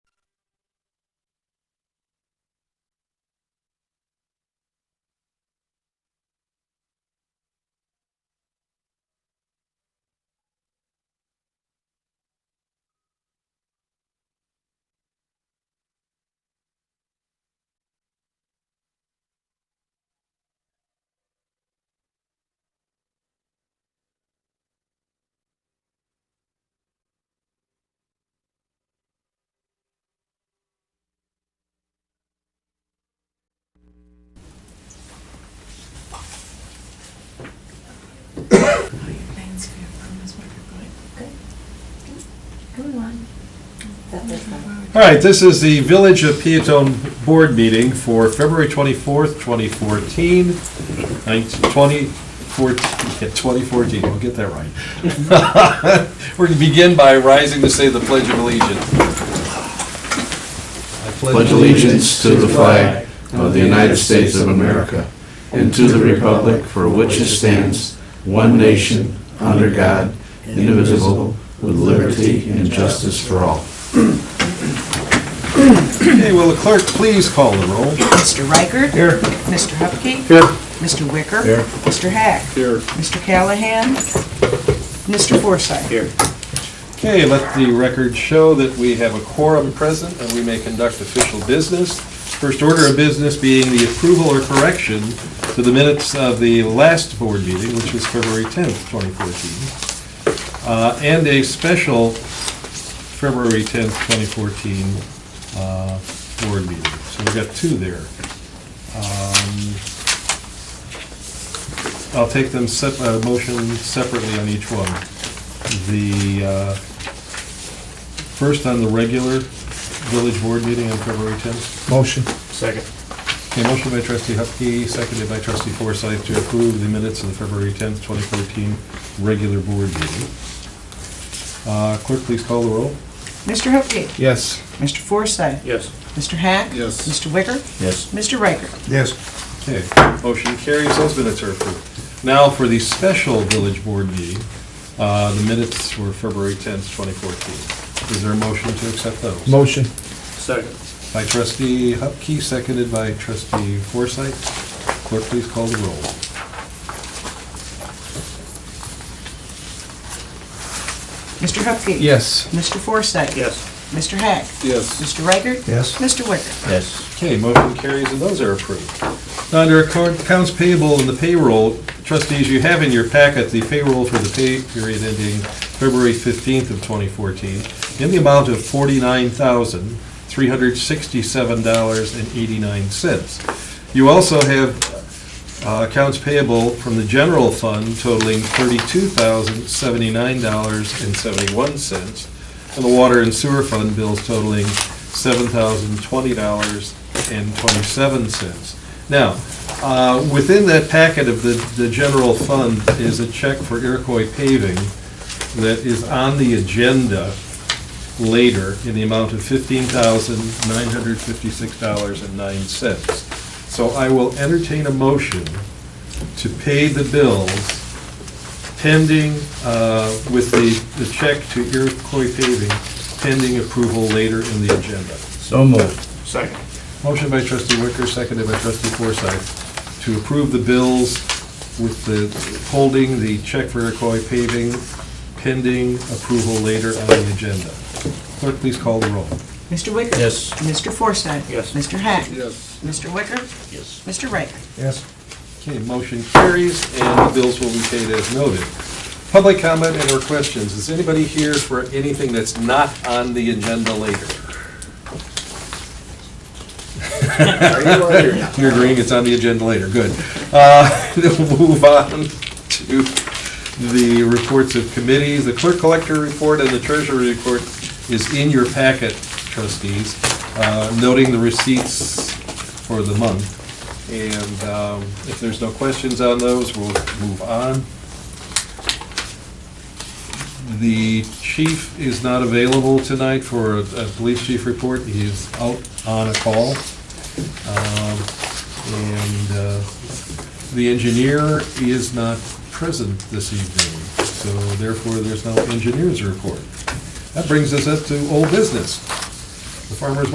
All right, this is the Village of Peatone Board Meeting for February 24th, 2014, 2014, 2014, we'll get that right. We're going to begin by rising to say the Pledge of Allegiance. I pledge allegiance to the flag of the United States of America and to the republic for which it stands, one nation, under God, indivisible, with liberty and justice for all. Okay, will the clerk please call the roll? Mr. Riker? Here. Mr. Hupkey? Here. Mr. Wicker? Here. Mr. Hack? Here. Mr. Callahan? Mr. Forsythe? Here. Okay, let the record show that we have a quorum present and we may conduct official business. First order of business being the approval or correction to the minutes of the last board meeting, which was February 10th, 2014, uh, and a special February 10th, 2014 uh, board meeting. So we've got two there. Um, I'll take them, sep- uh, motion separately on each one. The, uh, first on the regular village board meeting on February 10th. Motion. Second. Okay, motion by trustee Hupkey, seconded by trustee Forsythe to approve the minutes of the February 10th, 2014 regular board meeting. Uh, Clerk, please call the roll. Mr. Hupkey? Yes. Mr. Forsythe? Yes. Mr. Hack? Yes. Mr. Wicker? Yes. Mr. Riker? Yes. Okay, motion carries, those minutes are approved. Now for the special village board meeting, uh, the minutes were February 10th, 2014. Is there a motion to accept those? Motion. Second. By trustee Hupkey, seconded by trustee Forsythe. Clerk, please call the roll. Mr. Hupkey? Yes. Mr. Forsythe? Yes. Mr. Hack? Yes. Mr. Riker? Yes. Mr. Wicker? Yes. Okay, motion carries and those are approved. Now, Under account- accounts payable and the payroll, trustees, you have in your packet the payroll for the pay period ending February 15th of 2014 in the amount of $49,367.89. You also have uh, accounts payable from the general fund totaling $32,079.71 and the water and sewer fund bills totaling seven thousand twenty dollars and twenty-seven cents. Now, uh, within that packet of the, the general fund is a check for Iroquois paving that is on the agenda later in the amount of fifteen thousand nine hundred fifty-six dollars and nine cents. So I will entertain a motion to pay the bills pending, uh, with the, the check to Iroquois paving, pending approval later in the agenda. So moved. Second. Motion by trustee Wicker, seconded by trustee Forsythe, to approve the bills with the, holding the check for Iroquois paving pending approval later on the agenda. Clerk, please call the roll. Mr. Wicker? Yes. Mr. Forsythe? Yes. Mr. Hack? Yes. Mr. Wicker? Yes. Mr. Riker? Yes. Okay, motion carries, and the bills will be paid as noted. Public comment and/or questions. Is anybody here for anything that's not on the agenda later? You're agreeing it's on the agenda later, good. Uh, We'll move on to the reports of committees. The clerk collector report and the treasurer report is in your packet, trustees, uh, noting the receipts for the month. And um, if there's no questions on those, we'll move on. The chief is not available tonight for a a police chief report. He is out on a call. Um, And uh, the engineer is not present this evening, so therefore there's no engineer's report. That brings us up to old business. The farmer's